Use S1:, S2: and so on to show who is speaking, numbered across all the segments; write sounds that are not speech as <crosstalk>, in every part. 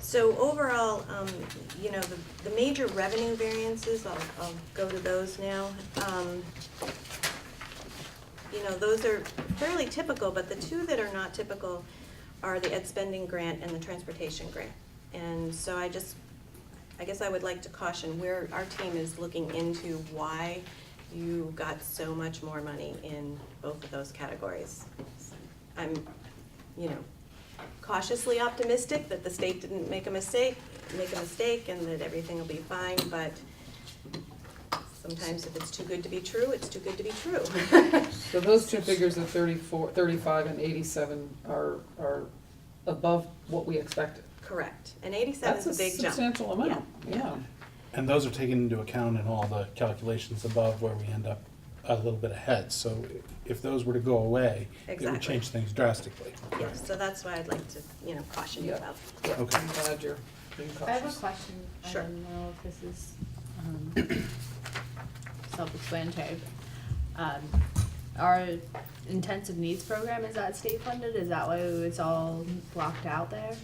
S1: So overall, um, you know, the, the major revenue variances, I'll, I'll go to those now. Um, you know, those are fairly typical, but the two that are not typical are the ed spending grant and the transportation grant. And so I just, I guess I would like to caution, where our team is looking into why you got so much more money in both of those categories. I'm, you know, cautiously optimistic that the state didn't make a mistake, make a mistake, and that everything will be fine, but sometimes if it's too good to be true, it's too good to be true. <laughs>
S2: So those two figures of 34, 35, and eighty-seven are, are above what we expected.
S1: Correct, and eighty-seven
S2: That's
S1: is a big jump.
S2: substantial amount, yeah.
S3: And those are taken into account in all the calculations above where we end up a little bit ahead. So if those were to go away, it
S1: Exactly.
S3: would change things drastically.
S1: Yeah, so that's why I'd like to, you know, caution you
S2: Yeah.
S1: about.
S2: Yeah,
S3: Okay.
S2: I'm glad you're being
S4: I have a
S2: cautious.
S4: question. I
S1: Sure.
S4: don't know if this is um, <coughs> self-explanatory. but, um, Our intensive needs program, is that state funded? Is that why it's all blocked out there?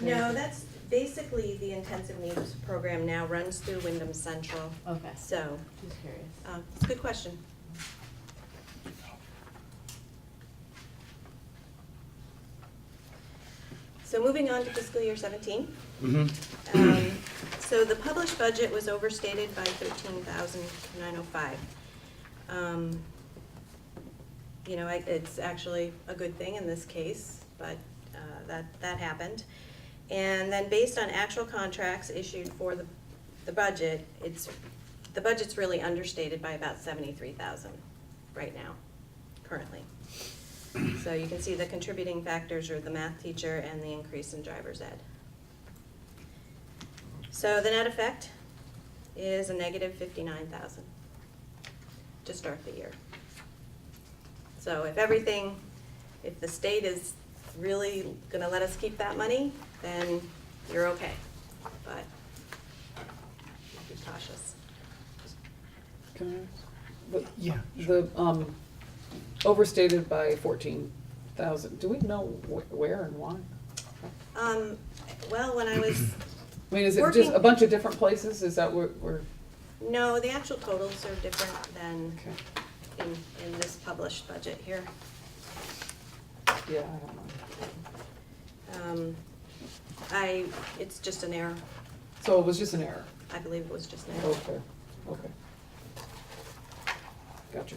S1: No, that's, basically, the intensive needs program now runs through Wyndham Central,
S4: Okay,
S1: so,
S4: just curious.
S1: uh, it's a good question. So moving on to fiscal year seventeen.
S3: Mm-hmm.
S1: Um, So the published budget was overstated by thirteen thousand nine oh five. Um, You know, I- it's actually a good thing in this case, but uh, that, that happened. And then based on actual contracts issued for the, the budget, it's, the budget's really understated by about seventy-three thousand right now, currently. So you can see the contributing factors are the math teacher and the increase in driver's ed. So the net effect is a negative fifty-nine thousand to start the year. So if everything, if the state is really gonna let us keep that money, then you're okay. But be cautious.
S2: Can I ask?
S3: Yeah.
S2: The, the, um, overstated by fourteen thousand, do we know wh- where and why?
S1: Um, well, when I was,
S2: I mean, is it just a
S1: Working-
S2: bunch of different places, is that where, where,
S1: no, the actual totals are different than
S2: okay,
S1: in, in this published budget here.
S2: yeah, I don't know.
S1: Um, I, it's just an error.
S2: So it was just an error,
S1: I believe it was just an error.
S2: okay, okay. Gotcha.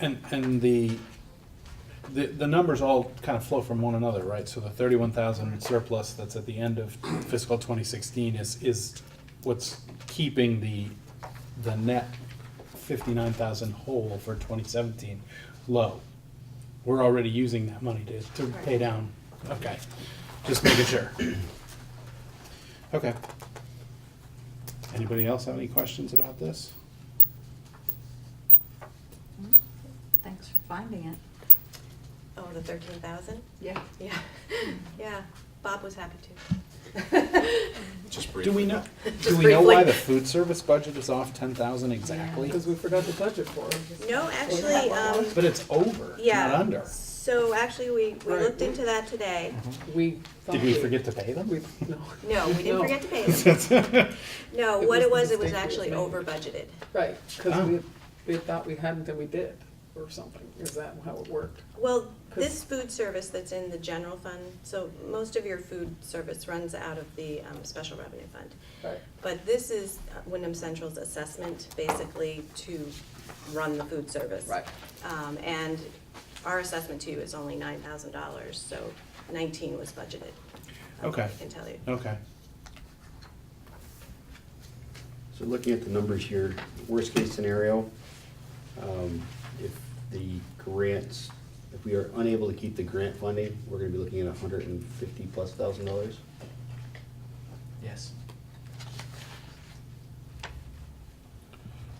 S3: And, and the, the, the numbers all kind of flow from one another, right? So the thirty-one thousand surplus that's at the end of fiscal twenty sixteen is, is what's keeping the, the net fifty-nine thousand whole for twenty seventeen low. We're already using that money to, to pay
S1: Right.
S3: down, okay, just making sure. Okay. Anybody else have any questions about this?
S5: Thanks for finding it.
S1: Oh, the thirteen thousand?
S5: Yeah.
S1: Yeah, <laughs> yeah, Bob was happy to.
S6: Just
S3: Do we
S6: briefly.
S3: know, <laughs> do
S1: Just
S3: we know
S1: briefly.
S3: why the food service budget is off ten thousand exactly?
S2: Because we forgot the budget for it.
S1: No, actually, um,
S3: But it's over, not
S1: yeah,
S3: under. Mm-hmm.
S1: so actually, we, we
S2: Right.
S1: looked into that today.
S2: We thought.
S3: Did we forget to pay
S2: <laughs>
S3: them?
S2: We, no,
S1: No, we didn't
S2: No.
S1: forget to
S2: <laughs>
S1: pay them. No,
S2: It
S1: what
S2: was
S1: it
S2: the
S1: was, it was
S2: mistake we
S1: actually
S2: made.
S1: over budgeted.
S2: right,
S3: Oh.
S2: because we, we thought we hadn't and we did, or something, is that how it worked?
S1: Well,
S2: Cause-
S1: this food service that's in the general fund, so most of your food service runs out of the, um, special revenue fund.
S2: Right.
S1: But this is uh, Wyndham Central's assessment, basically, to run the food service.
S2: Right.
S1: Um, and our assessment to you is only nine thousand dollars, so nineteen was budgeted. um,
S3: Okay.
S1: I can tell you.
S3: <laughs> Okay,
S6: So looking at the numbers here, worst case scenario, um, if the grants, if we are unable to keep the grant funding, we're gonna be looking at a hundred and fifty plus thousand dollars.
S7: Yes.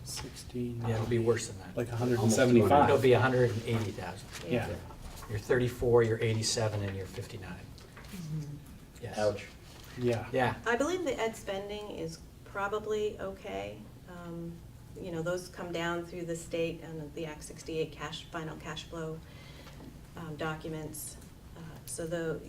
S3: sixteen,
S7: Yeah, it'll be worse than that.
S3: like hundred and
S6: Almost
S3: seventy-five.
S6: $200.
S7: It'll be a hundred and eighty thousand.
S3: Yeah,
S7: You're thirty-four, you're eighty-seven, and you're fifty-nine. Yes.
S6: Ouch.
S3: yeah.
S7: Yeah,
S1: I believe the ed spending is probably okay. Um, You know, those come down through the state and the Act sixty-eight cash, final cash flow um, documents. Uh, So the,